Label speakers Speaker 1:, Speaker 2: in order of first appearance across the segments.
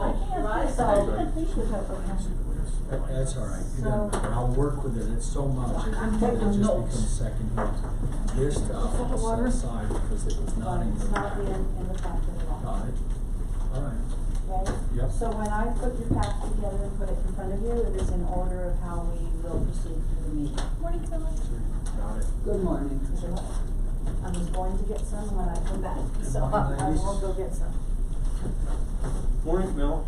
Speaker 1: I saw a picture of her.
Speaker 2: That- That's all right, you
Speaker 1: So-
Speaker 2: know, I'll work with it, it's so much, it
Speaker 1: I'm
Speaker 2: it
Speaker 1: taking
Speaker 2: just
Speaker 1: notes.
Speaker 2: becomes second hand. This stuff
Speaker 1: Is that
Speaker 2: I'll set
Speaker 1: water?
Speaker 2: aside because it was not in the.
Speaker 1: It's not in, in the packet at all,
Speaker 2: Got it, all right,
Speaker 1: right?
Speaker 2: Yep.
Speaker 1: So when I put your pack together and put it in front of you, it is in order of how we will proceed through the meeting.
Speaker 3: Morning, Philip.
Speaker 2: got it.
Speaker 4: Good morning.
Speaker 1: I was going to get some when I come back, so I I will go get some.
Speaker 5: Morning, Mel.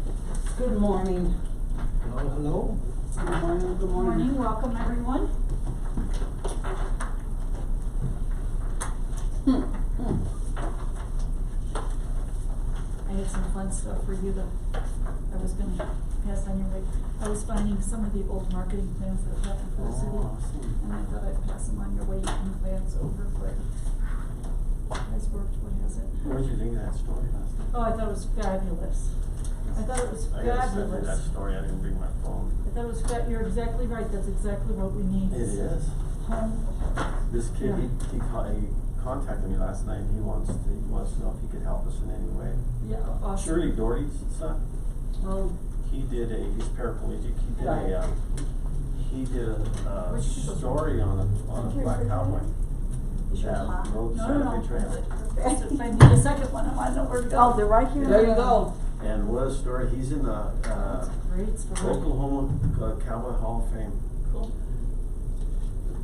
Speaker 4: Good morning.
Speaker 2: Hello, hello?
Speaker 4: Good morning, good
Speaker 3: Morning,
Speaker 4: morning.
Speaker 3: welcome everyone. I had some fun stuff for you that I was gonna pass on your way. I was finding some of the old marketing plans that have happened for the city. And I thought I'd pass them on your way, you can glance over quick. Has worked, what has it?
Speaker 5: What did you think of that story last night?
Speaker 3: Oh, I thought it was fabulous. I thought Oh, it was
Speaker 5: I gotta send you that
Speaker 3: fabulous.
Speaker 5: story, I didn't bring my phone.
Speaker 3: I thought it was fa- you're exactly right, that's exactly what we need.
Speaker 5: It is. This kid, he, he con- he contacted me last night, he wants, to- he wants to know if he could help us in any way.
Speaker 3: Yeah, awesome.
Speaker 5: Shirley Doherty's son,
Speaker 4: Oh,
Speaker 5: he did a, he's paraplegic, he did
Speaker 4: Right.
Speaker 5: a, um, he did a, uh,
Speaker 3: Where'd you get those from?
Speaker 5: story on a, on a black cowboy.
Speaker 1: Is yours
Speaker 5: Yeah,
Speaker 1: hot?
Speaker 5: Road
Speaker 3: No, no,
Speaker 5: Santa Fe
Speaker 3: no,
Speaker 5: Trail.
Speaker 3: that's it. If I need a second one, I wanna know where to go.
Speaker 1: Oh, they're right here.
Speaker 4: there you go.
Speaker 5: And what a story, he's in the, uh,
Speaker 3: That's a great story.
Speaker 5: Oklahoma uh, Cowboy Hall of Fame.
Speaker 3: Cool.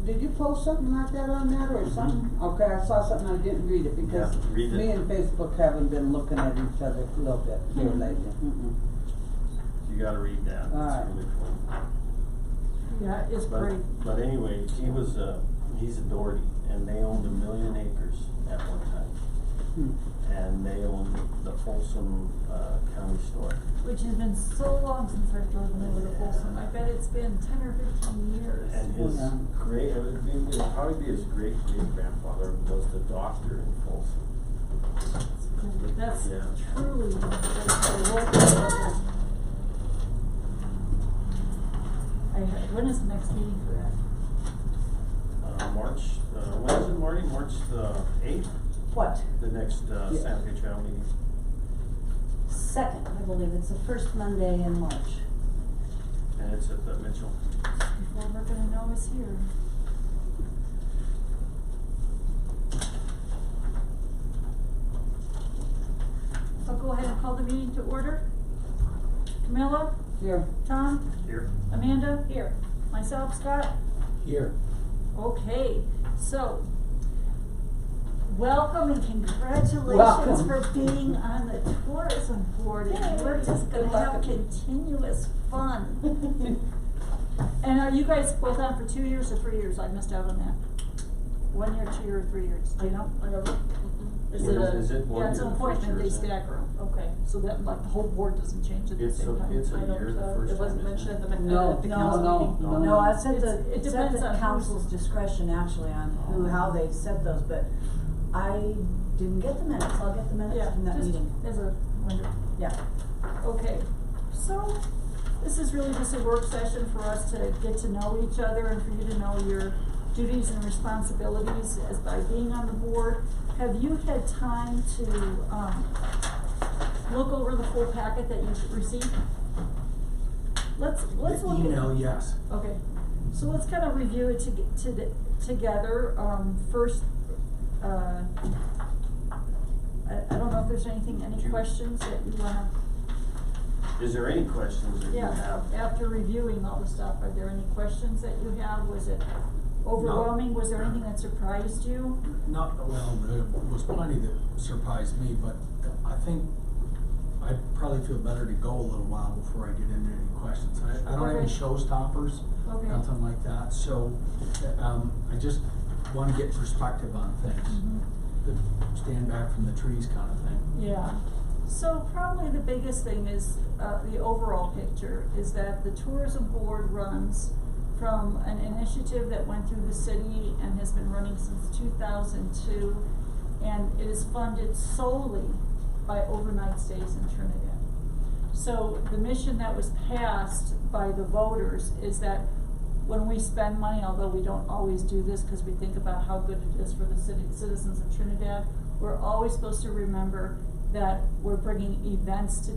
Speaker 4: Did you post something like that on that or something? Okay, I saw something, I didn't Mm-hmm. read it because
Speaker 5: Yeah, read it.
Speaker 4: me and Facebook haven't been looking at each other a little bit here lately. Mm-mm.
Speaker 5: You gotta read that,
Speaker 4: Alright.
Speaker 5: it's really cool.
Speaker 3: Yeah, it's great.
Speaker 5: But, but anyway, he was a, he's a Doherty, and they owned a million acres at one time.
Speaker 4: Hmm.
Speaker 5: And they owned the Folsom, uh, County Store.
Speaker 3: Which has been so long since I've driven over to Folsom. I bet it's been ten or fifteen years.
Speaker 5: And his
Speaker 4: Yeah.
Speaker 5: great, it would be, it would probably be his great great grandfather was the doctor in Folsom.
Speaker 3: It's great. That's
Speaker 5: Yeah.
Speaker 3: truly, that's a world record. I, heard- when is the next meeting for that?
Speaker 5: Uh, March, uh, when is it, Marty? March the eighth,
Speaker 1: What?
Speaker 5: the next, uh,
Speaker 4: Yeah.
Speaker 5: Santa Fe Trail meeting.
Speaker 1: Second, I believe, it's the first Monday in March.
Speaker 5: And it's at the Mitchell.
Speaker 3: Before we're gonna know it's here. I'll go ahead and call the meeting to order. Camilla,
Speaker 4: Here,
Speaker 3: Tom,
Speaker 5: Here.
Speaker 3: Amanda? Here. Myself, Scott?
Speaker 2: Here,
Speaker 3: Okay, so, welcome and congratulations
Speaker 4: Welcome.
Speaker 3: for being on the tourism board. And we're just gonna
Speaker 4: Good luck.
Speaker 3: have continuous fun. And are you guys both on for two years or three years? I missed out on that. One year, two year, three years, do you know? Whatever. Is it
Speaker 5: Is-
Speaker 3: a,
Speaker 5: is it one
Speaker 3: yeah, it's
Speaker 5: year,
Speaker 3: an
Speaker 5: the first
Speaker 3: appointment,
Speaker 5: year,
Speaker 3: they
Speaker 5: isn't it?
Speaker 3: stagger 'em. Okay, so that, like, the whole board doesn't change at the
Speaker 5: It's
Speaker 3: same
Speaker 5: a-
Speaker 3: time.
Speaker 5: it's a
Speaker 3: I don't-
Speaker 5: year the
Speaker 3: uh,
Speaker 5: first
Speaker 3: It wasn't
Speaker 5: time, isn't
Speaker 3: mentioned
Speaker 5: it?
Speaker 3: at the, min-
Speaker 4: No,
Speaker 3: at the
Speaker 4: no,
Speaker 3: council
Speaker 4: no,
Speaker 5: no.
Speaker 3: meeting.
Speaker 1: No, I said
Speaker 3: It's-
Speaker 1: the,
Speaker 3: it
Speaker 1: it's at
Speaker 3: depends on
Speaker 1: the
Speaker 3: who's- Oh.
Speaker 1: council's discretion actually on who, how they set those, but I didn't get the minutes, I'll get the minutes
Speaker 3: Yeah,
Speaker 1: from that
Speaker 3: just
Speaker 1: meeting.
Speaker 3: as a wonder.
Speaker 1: Yeah.
Speaker 3: Okay, so this is really just a work session for us to get to know each other and for you to know your duties and responsibilities as by being on the board. Have you had time to, um, look over the full packet that you've received? Let's, let's
Speaker 2: the
Speaker 3: look at.
Speaker 2: email, yes.
Speaker 3: Okay, so let's kind of review it to, to, together, um, first, uh, I, I don't know if there's anything, any
Speaker 5: Sure.
Speaker 3: questions that you wanna,
Speaker 5: Is there any questions that you
Speaker 3: yeah,
Speaker 5: have?
Speaker 3: after reviewing all the stuff, are there any questions that you have, was it overwhelming, was there anything that surprised you?
Speaker 2: Not, well, there was plenty that surprised me, but I think I probably feel better to go a little while before I get into any questions. I, I don't have any
Speaker 3: Okay.
Speaker 2: showstoppers,
Speaker 3: Okay.
Speaker 2: nothing like that, so, um, I just wanna get perspective on things. The stand back from the trees kinda thing.
Speaker 3: Mm-hmm. Yeah, so probably the biggest thing is, uh, the overall picture, is that the tourism board runs from an initiative that went through the city and has been running since two thousand two, and it is funded solely by overnight stays in Trinidad. So the mission that was passed by the voters is that when we spend money, although we don't always do this because we think about how good it is for the city, citizens of Trinidad, we're always supposed to remember that we're bringing events to